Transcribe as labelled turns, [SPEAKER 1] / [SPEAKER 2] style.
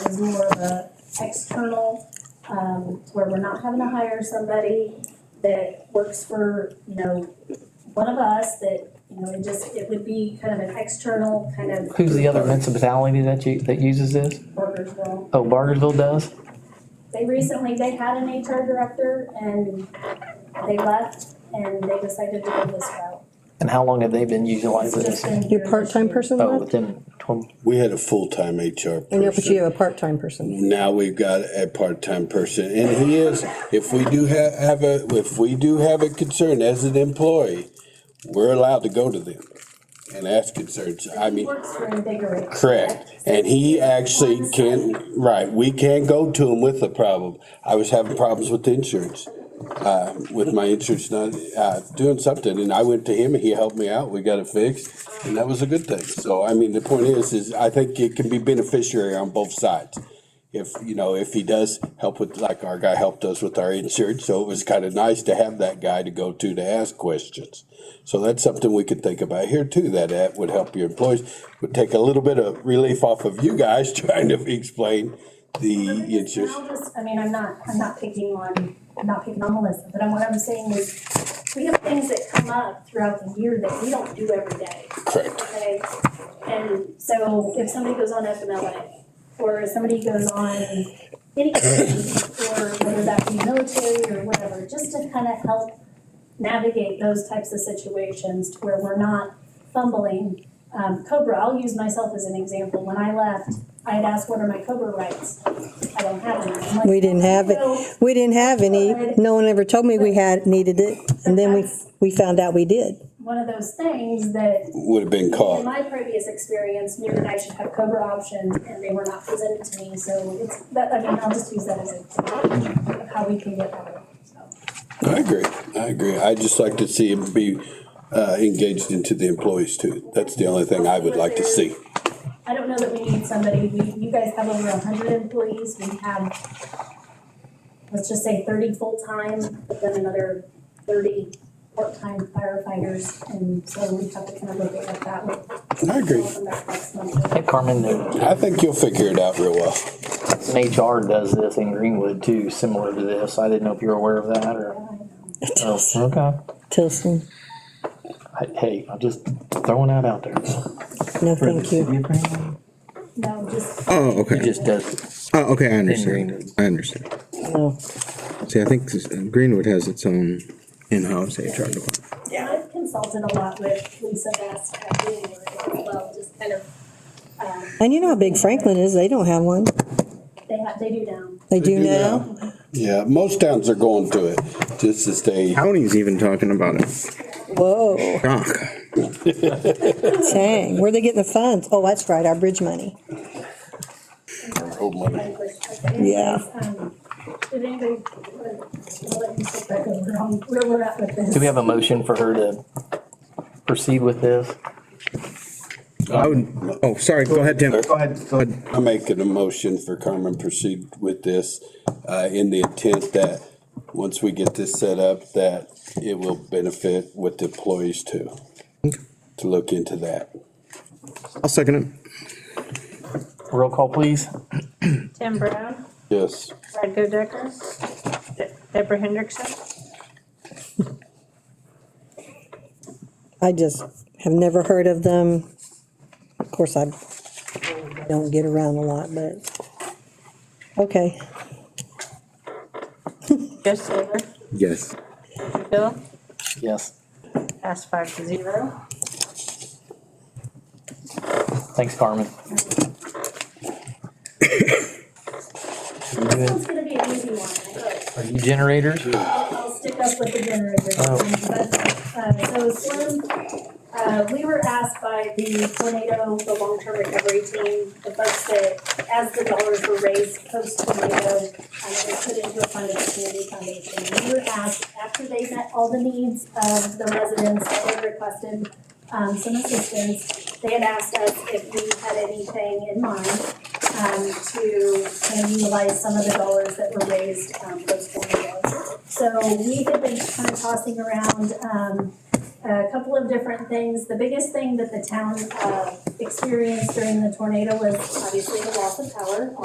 [SPEAKER 1] is more of a external, um, where we're not having to hire somebody that works for, you know, one of us that, you know, it just, it would be kind of an external kind of
[SPEAKER 2] Who's the other municipality that you, that uses this?
[SPEAKER 1] workers will.
[SPEAKER 2] Oh, Bargersville does?
[SPEAKER 1] They recently, they had an HR director and they left and they decided to go this route.
[SPEAKER 2] And how long have they been
[SPEAKER 1] It's
[SPEAKER 2] utilizing
[SPEAKER 1] just
[SPEAKER 2] this?
[SPEAKER 1] been here
[SPEAKER 3] Your
[SPEAKER 1] this
[SPEAKER 3] part-time
[SPEAKER 1] year.
[SPEAKER 3] person
[SPEAKER 2] Oh,
[SPEAKER 3] left?
[SPEAKER 2] within twenty,
[SPEAKER 4] We had a full-time HR
[SPEAKER 3] I know, but you
[SPEAKER 4] person.
[SPEAKER 3] have a part-time person.
[SPEAKER 4] Now we've got a part-time person and he is, if we do have, have a, if we do have a concern as an employee, we're allowed to go to them and ask concerns. I mean,
[SPEAKER 1] Works for Invigorate.
[SPEAKER 4] correct. And he actually can, right, we can go to him with a problem. I was having problems with the insurance. Uh, with my insurance not, uh, doing something and I went to him and he helped me out. We got it fixed. And that was a good thing. So, I mean, the point is, is I think it can be beneficiary on both sides. If, you know, if he does help with, like our guy helped us with our insurance, so it was kind of nice to have that guy to go to to ask questions. So that's something we could think about here too, that that would help your employees, would take a little bit of relief off of you guys trying to explain the
[SPEAKER 1] And
[SPEAKER 4] insurance.
[SPEAKER 1] I'll just, I mean, I'm not, I'm not picking on, I'm not picking on Melissa, but I'm, what I'm saying is, we have things that come up throughout the year that we don't do every day,
[SPEAKER 4] Correct.
[SPEAKER 1] okay? And so if somebody goes on FMLA, or somebody goes on any, or whether that be military or whatever, just to kind of help navigate those types of situations to where we're not fumbling. Um, Cobra, I'll use myself as an example. When I left, I had asked, what are my Cobra rights? I don't have any. I'm like,
[SPEAKER 3] We didn't have it.
[SPEAKER 1] "So
[SPEAKER 3] We didn't have any. No one ever told me we had, needed it. And then we, we found out we did.
[SPEAKER 1] One of those things that
[SPEAKER 4] Would have been
[SPEAKER 1] in
[SPEAKER 4] called.
[SPEAKER 1] my previous experience knew that I should have Cobra options and they were not presented to me, so it's, that, I mean, I'll just use that as an example of how we can get better, so.
[SPEAKER 4] I agree. I agree. I just like to see him be uh, engaged into the employees too. That's the only thing I would like to see.
[SPEAKER 1] I don't know that we need somebody, we, you guys have over hundred employees, we have, let's just say thirty full-time, but then another thirty part-time firefighters, and so we have to kind of look at what that. would-
[SPEAKER 4] I agree.
[SPEAKER 1] Come back next month.
[SPEAKER 2] hey Carmen, there's
[SPEAKER 4] I think you'll figure it out real well.
[SPEAKER 2] an HR does this in Greenwood too, similar to this. I didn't know if you're aware of that or. Oh, okay.
[SPEAKER 3] Tilson,
[SPEAKER 2] I- Hey, I'm just throwing that out there.
[SPEAKER 3] no, thank you.
[SPEAKER 1] No, just,
[SPEAKER 5] Oh,
[SPEAKER 2] He
[SPEAKER 5] okay.
[SPEAKER 2] just does it.
[SPEAKER 5] Oh, okay, I
[SPEAKER 2] Greenwood.
[SPEAKER 5] understand. I understand.
[SPEAKER 3] No.
[SPEAKER 5] See, I think this- uh, Greenwood has its own in-house HR department.
[SPEAKER 1] I've consulted a lot with Lisa Best at Bloomberg as well, just kind of, um,
[SPEAKER 3] And you know how big Franklin is. They don't have one.
[SPEAKER 1] they have, they do now.
[SPEAKER 3] They do
[SPEAKER 4] do
[SPEAKER 3] now.
[SPEAKER 4] Yeah, most towns are going to it just to stay.
[SPEAKER 5] County's even talking about it.
[SPEAKER 3] Whoa,
[SPEAKER 5] Doc,
[SPEAKER 3] dang. Where are they getting the funds? Oh, that's right, our bridge money.
[SPEAKER 4] Old money.
[SPEAKER 3] Yeah.
[SPEAKER 1] Did anybody, I'll let you take back over on where we're at with this.
[SPEAKER 2] Do we have a motion for her to proceed with this?
[SPEAKER 5] I would, oh, sorry, go ahead, Tim. Go ahead. Go ahead.
[SPEAKER 4] I'm making a motion for Carmen proceed with this uh, in the intent that, once we get this set up, that it will benefit with the employees too, to look into that.
[SPEAKER 5] I'll second it.
[SPEAKER 2] Roll call, please.
[SPEAKER 6] Tim Brown,
[SPEAKER 4] Yes.
[SPEAKER 6] Rod Decker, De- Deborah Hendrickson,
[SPEAKER 3] I just have never heard of them. Of course, I don't get around a lot, but, okay.
[SPEAKER 6] Joe Silver,
[SPEAKER 5] Yes.
[SPEAKER 6] Bill,
[SPEAKER 2] Yes.
[SPEAKER 6] pass five to zero.
[SPEAKER 2] Thanks, Carmen.
[SPEAKER 1] This one's gonna be an easy one, I hope.
[SPEAKER 2] Are you generators?
[SPEAKER 1] I'll I'll stick up with the generator.
[SPEAKER 2] Oh.
[SPEAKER 1] But, uh, so Slim, uh, we were asked by the tornado, the long-term recovery team, the folks that, as the dollars were raised post-tornado, um, it was put into a fund of the community foundation. We were asked, after they met all the needs of the residents that they requested, um, some assistance, they had asked us if we had anything in mind um, to kind of utilize some of the dollars that were raised, um, post-tornado. So we have been kind of tossing around, um, a couple of different things. The biggest thing that the town, uh, experienced during the tornado was obviously the loss of power.